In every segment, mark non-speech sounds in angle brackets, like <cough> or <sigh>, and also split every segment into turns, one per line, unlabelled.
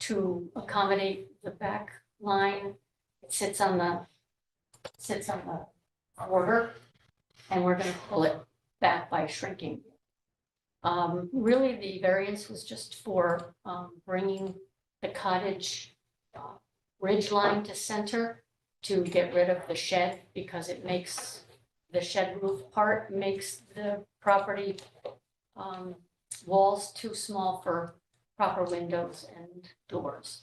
to accommodate the back line. It sits on the, sits on the border, and we're gonna pull it back by shrinking. Um, really, the variance was just for, um, bringing the cottage uh, ridge line to center to get rid of the shed, because it makes, the shed roof part makes the property um, walls too small for proper windows and doors.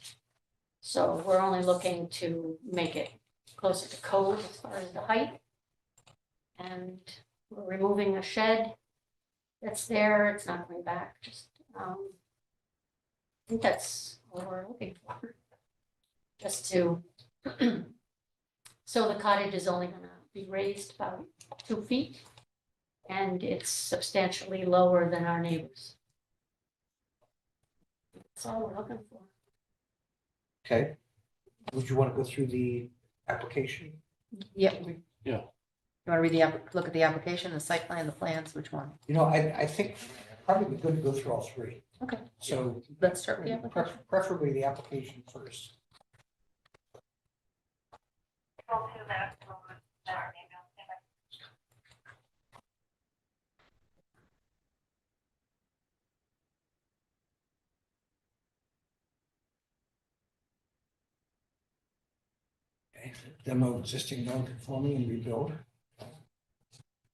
So we're only looking to make it closer to code as far as the height. And we're removing a shed that's there, it's not going back, just, um, I think that's what we're looking for. Just to, <clears throat> so the cottage is only gonna be raised about two feet, and it's substantially lower than our neighbors. That's all we're looking for.
Okay. Would you want to go through the application?
Yep. You
Yeah.
want to read the, app- look at the application, the site plan, the plans, which one?
You know, I, I think probably good to go through all three.
Okay.
So
Let's start with the application.
pref- preferably the application first. Okay, Demo existing non-conforming and rebuild.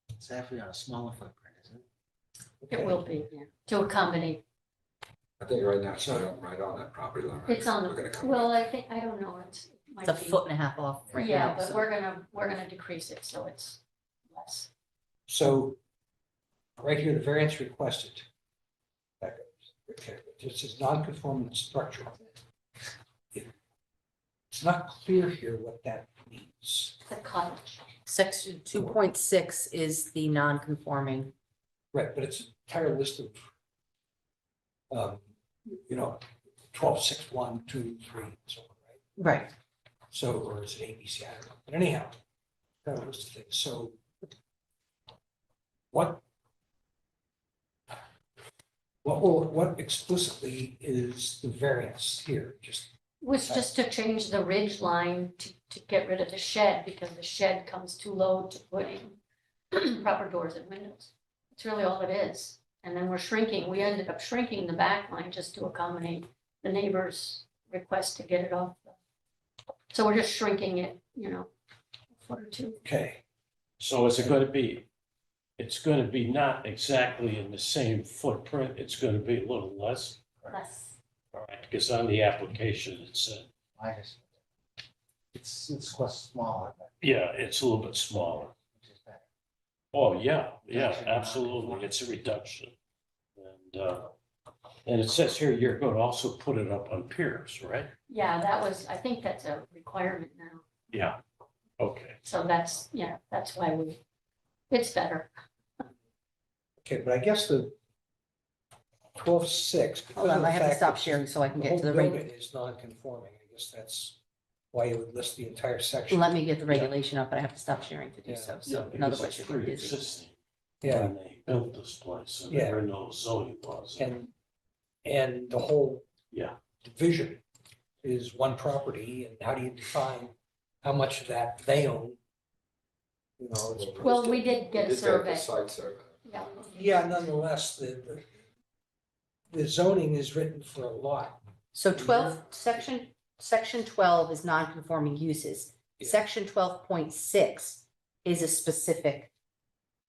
It's actually on a smaller footprint, isn't it?
It will be, yeah, to accommodate.
I think right now, it's right right on that property line. right?
It's on,
We're gonna
the
come
well, I think, I don't know, it's. might
It's a
be-
foot and a half off right
Yeah,
now,
but
so-
we're gonna, we're gonna decrease it, so it's less.
So right here, the variance requested. Back up. Okay, This is non-conforming structure. It's not clear here what that means.
The cottage,
Section two point six is the non-conforming.
Right, but it's an entire list of um, you know, twelve, six, one, two, three, and so on, right?
Right.
So, or is it ABC? I don't know. But anyhow, that was the thing. So what? What will, what explicitly is the variance here? Just,
was just to change the ridge line to, to get rid of the shed, because the shed comes too low to put in <clears throat> proper doors and windows. It's really all it is. And then we're shrinking, we ended up shrinking the back line just to accommodate the neighbor's request to get it off. the- So we're just shrinking it, you know, a foot or two.
okay,
So is it gonna be, it's gonna be not exactly in the same footprint, it's gonna be a little less?
less.
All right, because on the application, it said,
I just, it's, it's quite smaller, but
yeah, it's a little bit smaller.
which is better.
Oh, yeah, yeah,
Reduction,
absolutely,
non-conformity.
it's a reduction. And, uh, and it says here, you're gonna also put it up on piers, right?
Yeah, that was, I think that's a requirement now.
Yeah. Okay,
So that's, yeah, that's why we, it's better.
okay, but I guess the twelve, six.
Hold on, I have to stop sharing so I can get to the, reg-
Is non-conforming. I guess that's why you would list the entire section.
let me get the regulation up, but I have to stop sharing to do so,
yeah,
so in other
because
words,
it's
you're getting busy.
pre-existing.
Yeah.
When they built this place, and
Yeah.
there were no zoning laws.
And, and the whole.
Yeah.
Division is one property and how do you define how much of that they own? You know, it's.
up.
Well, we did get a
We did
survey.
the Site survey.
Yeah.
Yeah, nonetheless, the, the- the zoning is written for a lot.
So twelve, section, section twelve is non-conforming uses.
Yeah.
Section twelve point six is a specific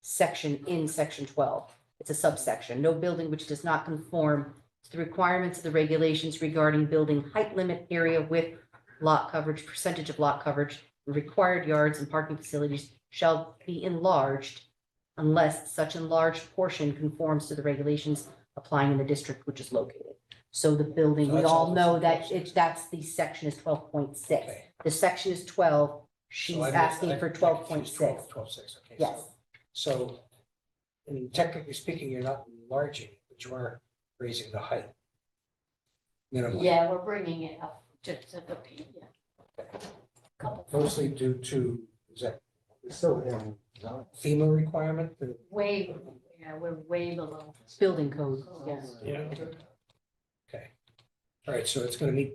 section in section twelve. It's a subsection. No building which does not conform to the requirements of the regulations regarding building height limit, area width, lot coverage, percentage of lot coverage, required yards and parking facilities shall be enlarged unless such enlarged portion conforms to the regulations applying in the district which is located. So the building,
So
we
that's
all
all
know
that's
that
proposed.
it's, that's the section is twelve point six.
Okay,
The section is twelve, she's
so I- I-
asking for
I
twelve point
confused
six.
12, 12.6, okay. so-
Yes,
So, and technically speaking, you're not enlarging, but you are raising the height. Minimum.
Yeah, we're bringing it up just to the, P- yeah. Couple
Mostly due to, is that
It's still in zoning.
FEMA requirement? the-
Way, yeah, we're way below.
building code, yes.
Yeah.
Okay. All right, so it's gonna meet